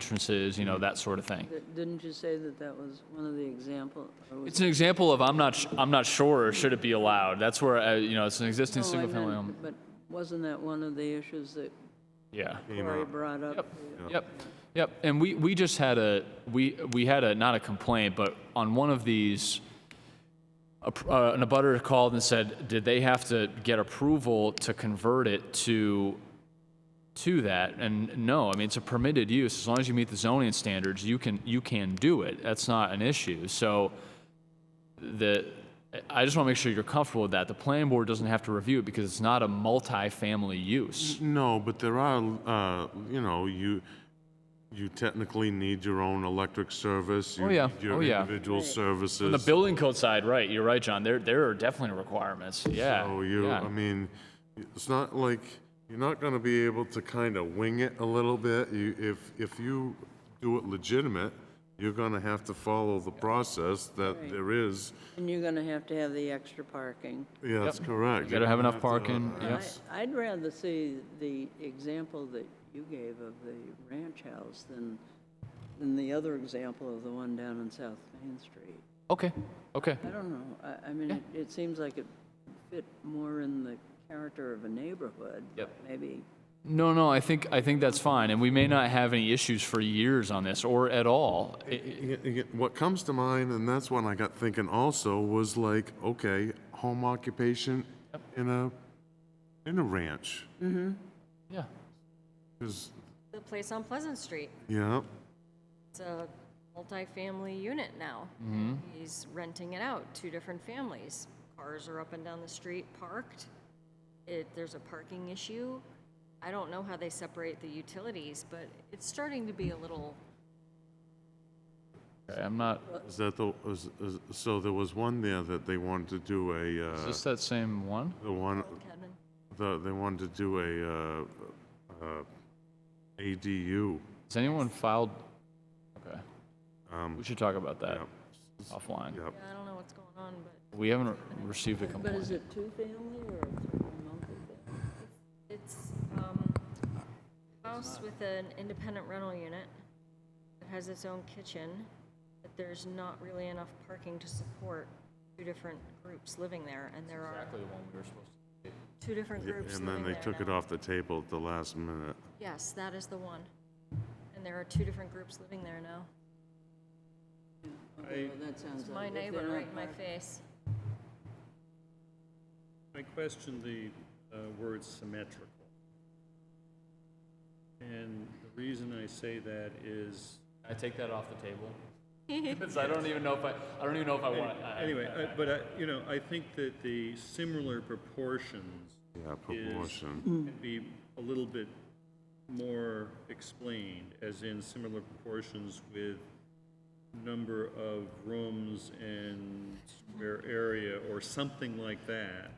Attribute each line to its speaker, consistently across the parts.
Speaker 1: entrances, you know, that sort of thing.
Speaker 2: Th- Didn't you say that that was one of the example? or was-
Speaker 1: It's an example of I'm not sh- I'm not sure or should it be allowed. That's where uh, you know it's an existing
Speaker 2: No, Oh, I
Speaker 1: single family
Speaker 2: meant-
Speaker 1: home.
Speaker 2: But wasn't that one of the issues that
Speaker 1: Yeah.
Speaker 2: Corey brought up?
Speaker 1: Yep. Yep. And we, we just had a we we had a not a complaint, but on one of these a, pr- uh, an abutter called and said, did they have to get approval to convert it to to that? And no, I mean it's a permitted use as long as you meet the zoning standards, you can you can do it. That's not an issue. So the I just want to make sure you're comfortable with that. The planning board doesn't have to review it because it's not a multi-family use.
Speaker 3: No, but there are, uh, you know, you, you technically need your own electric service. you
Speaker 1: Oh, yeah.
Speaker 3: need your
Speaker 1: Oh, yeah.
Speaker 3: Individual
Speaker 1: On the
Speaker 3: services.
Speaker 1: building code side, right, you're right, John, there, there are definitely requirements, yeah.
Speaker 3: So you,
Speaker 1: yeah.
Speaker 3: I mean, it's not like, you're not gonna be able to kind of wing it a little bit. You, if, if you do it legitimate, you're gonna have to follow the process that there is.
Speaker 2: And you're going to have to have the extra parking.
Speaker 3: Yeah, that's correct.
Speaker 1: You gotta have enough
Speaker 3: You're gonna
Speaker 1: parking,
Speaker 3: have to- uh,
Speaker 1: yeah.
Speaker 2: I- I'd rather see the example that you gave of the ranch house than, than the other example of the one down on South Main Street.
Speaker 1: Okay, okay,
Speaker 2: I don't know, I, I mean, it, it seems like it fit more in the character of a neighborhood. but
Speaker 1: Yep.
Speaker 2: Maybe,
Speaker 1: no, no, I think, I think that's fine, and we may not have any issues for years on this, or at all. I- I-
Speaker 3: Y- y- What comes to mind, and that's when I got thinking also, was like, okay, home occupation in a, in a ranch.
Speaker 1: Yeah,
Speaker 3: 'Cause,
Speaker 4: the place on Pleasant Street.
Speaker 3: yeah,
Speaker 4: It's a multi-family unit now. He's renting it out, two different families. Cars are up and down the street parked. It, there's a parking issue. I don't know how they separate the utilities, but it's starting to be a little,
Speaker 1: Okay, I'm not,
Speaker 3: is that the, is, is, so there was one there that they wanted to do a,
Speaker 1: is
Speaker 3: uh,
Speaker 1: this that same one?
Speaker 3: the one,
Speaker 4: Kevin,
Speaker 3: the, they wanted to do a, uh, uh, ADU.
Speaker 1: Has anyone filed? Okay,
Speaker 3: Um,
Speaker 1: we should talk about that
Speaker 3: yeah,
Speaker 1: offline.
Speaker 3: yeah.
Speaker 4: yeah, I don't know what's going on, but
Speaker 1: We haven't re- received a
Speaker 2: but is
Speaker 1: complaint.
Speaker 2: it two-family or multi-family?
Speaker 4: it's, um, a house with an independent rental unit that has its own kitchen, but there's not really enough parking to support two different groups living there, and there are
Speaker 1: Exactly the one we were supposed
Speaker 4: two different groups
Speaker 3: And then
Speaker 4: living
Speaker 3: they
Speaker 4: there
Speaker 3: took it
Speaker 4: now.
Speaker 3: off the table at the last minute.
Speaker 4: Yes, that is the one. And there are two different groups living there now.
Speaker 2: Okay, well, that sounds
Speaker 4: It's
Speaker 2: like. if
Speaker 4: my
Speaker 2: they're
Speaker 4: neighbor
Speaker 2: not
Speaker 4: right in my
Speaker 2: parked-
Speaker 4: face.
Speaker 5: I question the uh, word symmetrical. And the reason I say that is,
Speaker 1: to. I take that off the table? Because I don't even know if I, I don't even know if I want,
Speaker 5: anyway, I- but I, you know, I think that the similar proportions
Speaker 3: Yeah, proportion.
Speaker 5: can be a little bit more explained, as in similar proportions with number of rooms and square area, or something like that.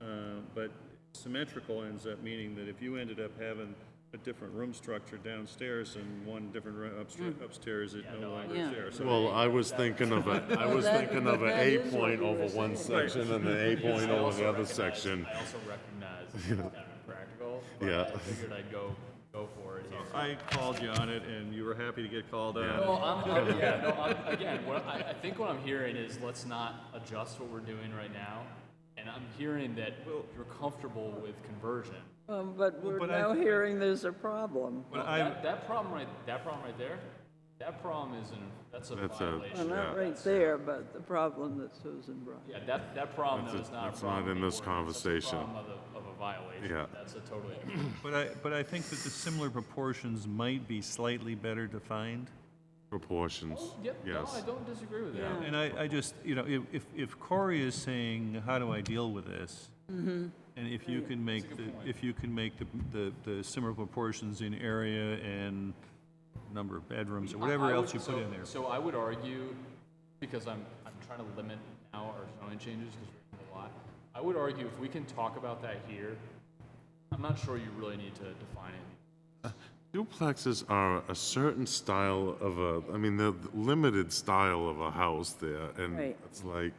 Speaker 5: Uh, But symmetrical ends up meaning that if you ended up having a different room structure downstairs and one different room upstra- upstairs, it no longer
Speaker 2: Yeah.
Speaker 5: is there. So
Speaker 3: Well, I was thinking of a, I was
Speaker 2: that-
Speaker 3: thinking of
Speaker 2: but
Speaker 3: an
Speaker 2: that
Speaker 3: A
Speaker 2: is what
Speaker 3: point
Speaker 2: we were
Speaker 3: over one section and an A point over the other section.
Speaker 1: I also recognize it's kind of practical, but
Speaker 3: Yeah.
Speaker 1: I figured I'd go, go for it here.
Speaker 5: I called you on it, and you were happy to get called on.
Speaker 1: Well, I'm, I'm- yeah, no, I'm, again, what I, I think what I'm hearing is let's not adjust what we're doing right now. And I'm hearing that you're comfortable with conversion.
Speaker 2: Um, But we're
Speaker 5: but I-
Speaker 2: now hearing there's a problem.
Speaker 5: But
Speaker 1: Well,
Speaker 5: I'm-
Speaker 1: that, that problem right, that problem right there, that problem is an, that's a
Speaker 3: That's a-
Speaker 2: Well,
Speaker 1: violation.
Speaker 2: not
Speaker 3: Yeah.
Speaker 2: right there, but the problem that Susan brought.
Speaker 1: Yeah, that, that problem though
Speaker 3: That's a-
Speaker 1: is not a
Speaker 3: that's not
Speaker 1: problem.
Speaker 3: in
Speaker 1: of the
Speaker 3: this
Speaker 1: ordinance, that's a
Speaker 3: conversation.
Speaker 1: problem of a- of a violation.
Speaker 3: Yeah.
Speaker 1: That's a totally,
Speaker 5: But I, but I think that the similar proportions might be slightly better defined.
Speaker 3: Proportions,
Speaker 1: yep, no, I
Speaker 3: yes.
Speaker 1: don't disagree with that.
Speaker 5: And I, I just, you know, if, if, if Corey is saying, how do I deal with this? And if you can make, the if you can make the, the, the similar proportions in area and number of bedrooms or
Speaker 1: I-
Speaker 5: whatever
Speaker 1: I
Speaker 5: else you
Speaker 1: would-
Speaker 5: put
Speaker 1: so-
Speaker 5: in there.
Speaker 1: So I would argue, because I'm, I'm trying to limit now our zoning changes, because we're doing a lot, I would argue if we can talk about that here, I'm not sure you really need to define it.
Speaker 3: Duplexes are a certain style of a, I mean, the limited style of a house there, and
Speaker 2: Right.
Speaker 3: it's like,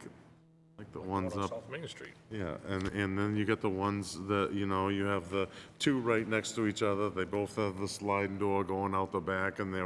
Speaker 3: like the ones
Speaker 6: on
Speaker 3: up
Speaker 6: South Main Street.
Speaker 3: Yeah, and, and then you get the ones that, you know, you have the two right next to each other, they both have the sliding door going out the back, and they're